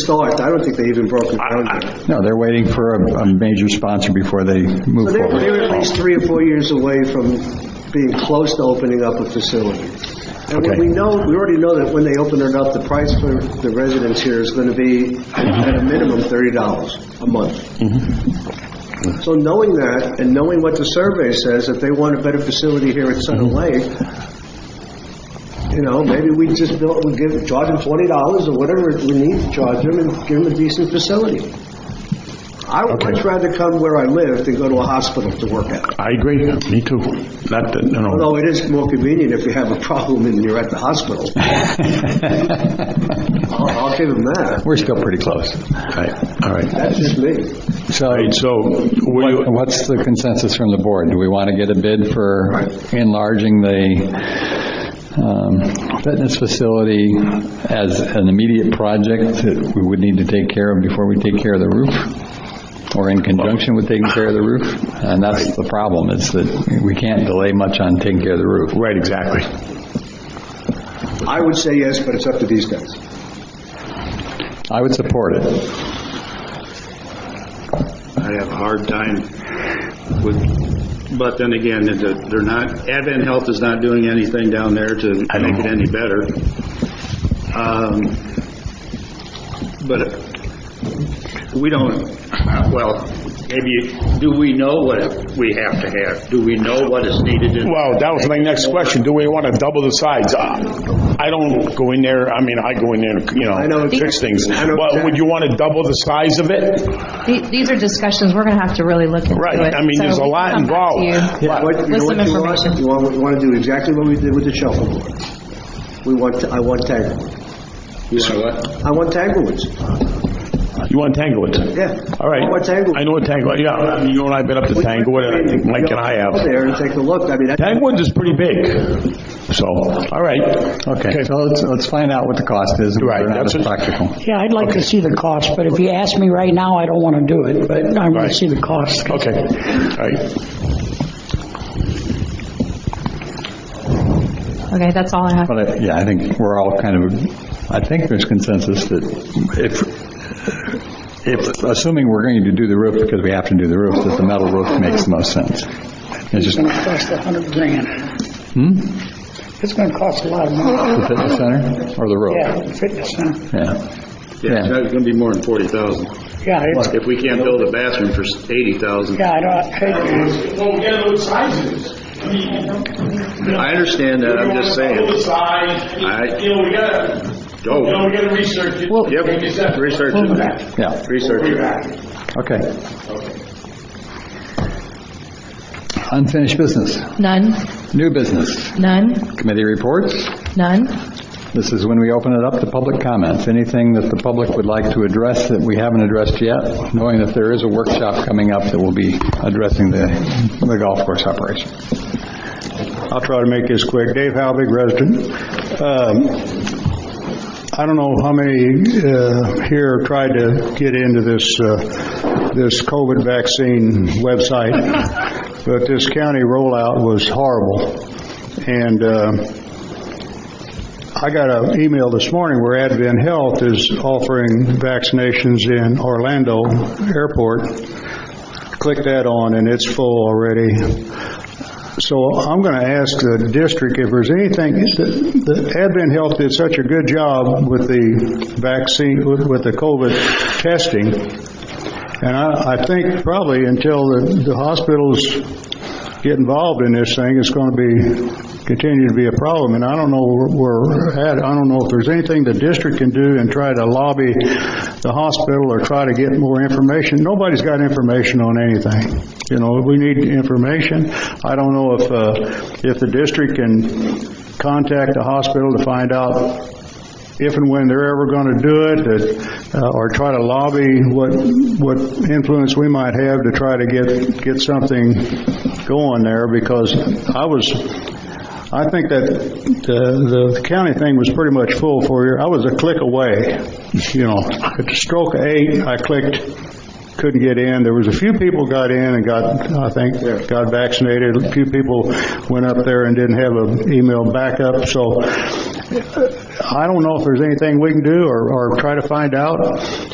start. I don't think they even broke ground yet. No, they're waiting for a, a major sponsor before they move So they're, they're at forward. least three or four years away from being close to opening up a facility. And when Okay. we know, we already know that when they open it up, the price for the residents here is gonna be at a minimum thirty dollars a month. So knowing that, and knowing what the survey says, if they want a better facility here at Center Lake, you know, maybe we just build, we give, charge them twenty dollars or whatever we need to charge them and give them a decent facility. I would much rather come where I live than go to a hospital to work at. I agree, me too. Not that, you know, Although it is more convenient if you have a problem and you're at the hospital. I'll I'll give them that. We're still pretty close. right, all right. That's just me. So All right, so, what do you, what's the consensus from the board? Do we want to get a bid for enlarging the um, fitness facility as an immediate project that we would need to take care of before we take care of the roof? Or in conjunction with taking care of the roof? And that's the problem, is that we can't delay much on taking care of the roof. right, exactly. I would say yes, but it's up to these guys. I would support it. I have a hard time with, but then again, they're they're not, Advent Health is not doing anything down there to make it any better. Um, But we don't, well, maybe, do we know what we have to have? Do we know what is needed in? Well, that was my next question, do we want to double the sides? Uh, I don't go in there, I mean, I go in there, you I know know, exactly- fix things. I know But would exactly. you want to double the size of it? The- These are discussions, we're going to have to really look into it. Right, I mean, So there's a we can lot come back to involved. you. What- what- you know what With some you want? information. You want, you want to do exactly what we did with the shuffleboard. We want, I want Tanglewood. You want what? I want Tanglewoods, You want Tanglewood? yeah. All right. I want Tanglewood. I know what Tanglewood, yeah, I mean, you and I have been up to Tanglewood, and I think Mike and I Go have. there and take a look. I mean, that- Tanglewood is pretty big, so, all right. Okay, so let's, let's find out what the cost is. and Right, whether or not that's it's what- practical. Yeah, I'd like to see the cost, but if you ask me right now, I don't want to do it, but I want Right. to see the cost. Okay, all right. Okay, that's all I have. But, I- yeah, I think we're all kind of, I think there's consensus that if, if, assuming we're going to do the roof because we have to do the roof, that the metal roof makes the most sense. It's just It's going to cost a hundred grand. Hmm? It's going to cost a lot of money. the fitness center or the Yeah, roof. the fitness center. Yeah. Yeah, it's going to be more than 40,000. Yeah, it's, If we can't build a bathroom for 80,000. yeah, I don't, Don't get what size it is. I mean, I understand that, I'm just saying. What size, I- you know, we gotta, you Oh. know, we gotta research it. Well- Like you Yep, said. research it. Yeah, Research it. okay. Unfinished business, None, new business, none, committee reports. none. This is when we open it up to public comments. Anything that the public would like to address that we haven't addressed yet, knowing that there is a workshop coming up that will be addressing the, the golf course operation. I'll try to make this quick. Dave Halbig, resident. Um, I don't know how many uh, here tried to get into this, uh, this COVID vaccine website, but this county rollout was horrible. And uh, I got an email this morning where Advent Health is offering vaccinations in Orlando Airport click that on, and it's full already. So I'm going to ask the district if there's anything, the- the Advent Health did such a good job with the vaccine, with with the COVID testing, and I, I think probably until the, the hospitals get involved in this thing, it's going to be, continue to be a problem, and I don't know where we're at, I don't know if there's anything the district can do and try to lobby the hospital or try to get more information. Nobody's got information on anything. You know, we need information. I don't know if, uh, if the district can contact the hospital to find out if and when they're ever going to do it, that, uh, or try to lobby what, what influence we might have to try to get, get something going there, because I was, I think that the, the county thing was pretty much full for you. I was a click away, you know, at the stroke of eight, I clicked, couldn't get in. There was a few people got in and got, I think, got vaccinated. A few people went up there and didn't have an email backup. So I don't know if there's anything we can do or, or try to find out.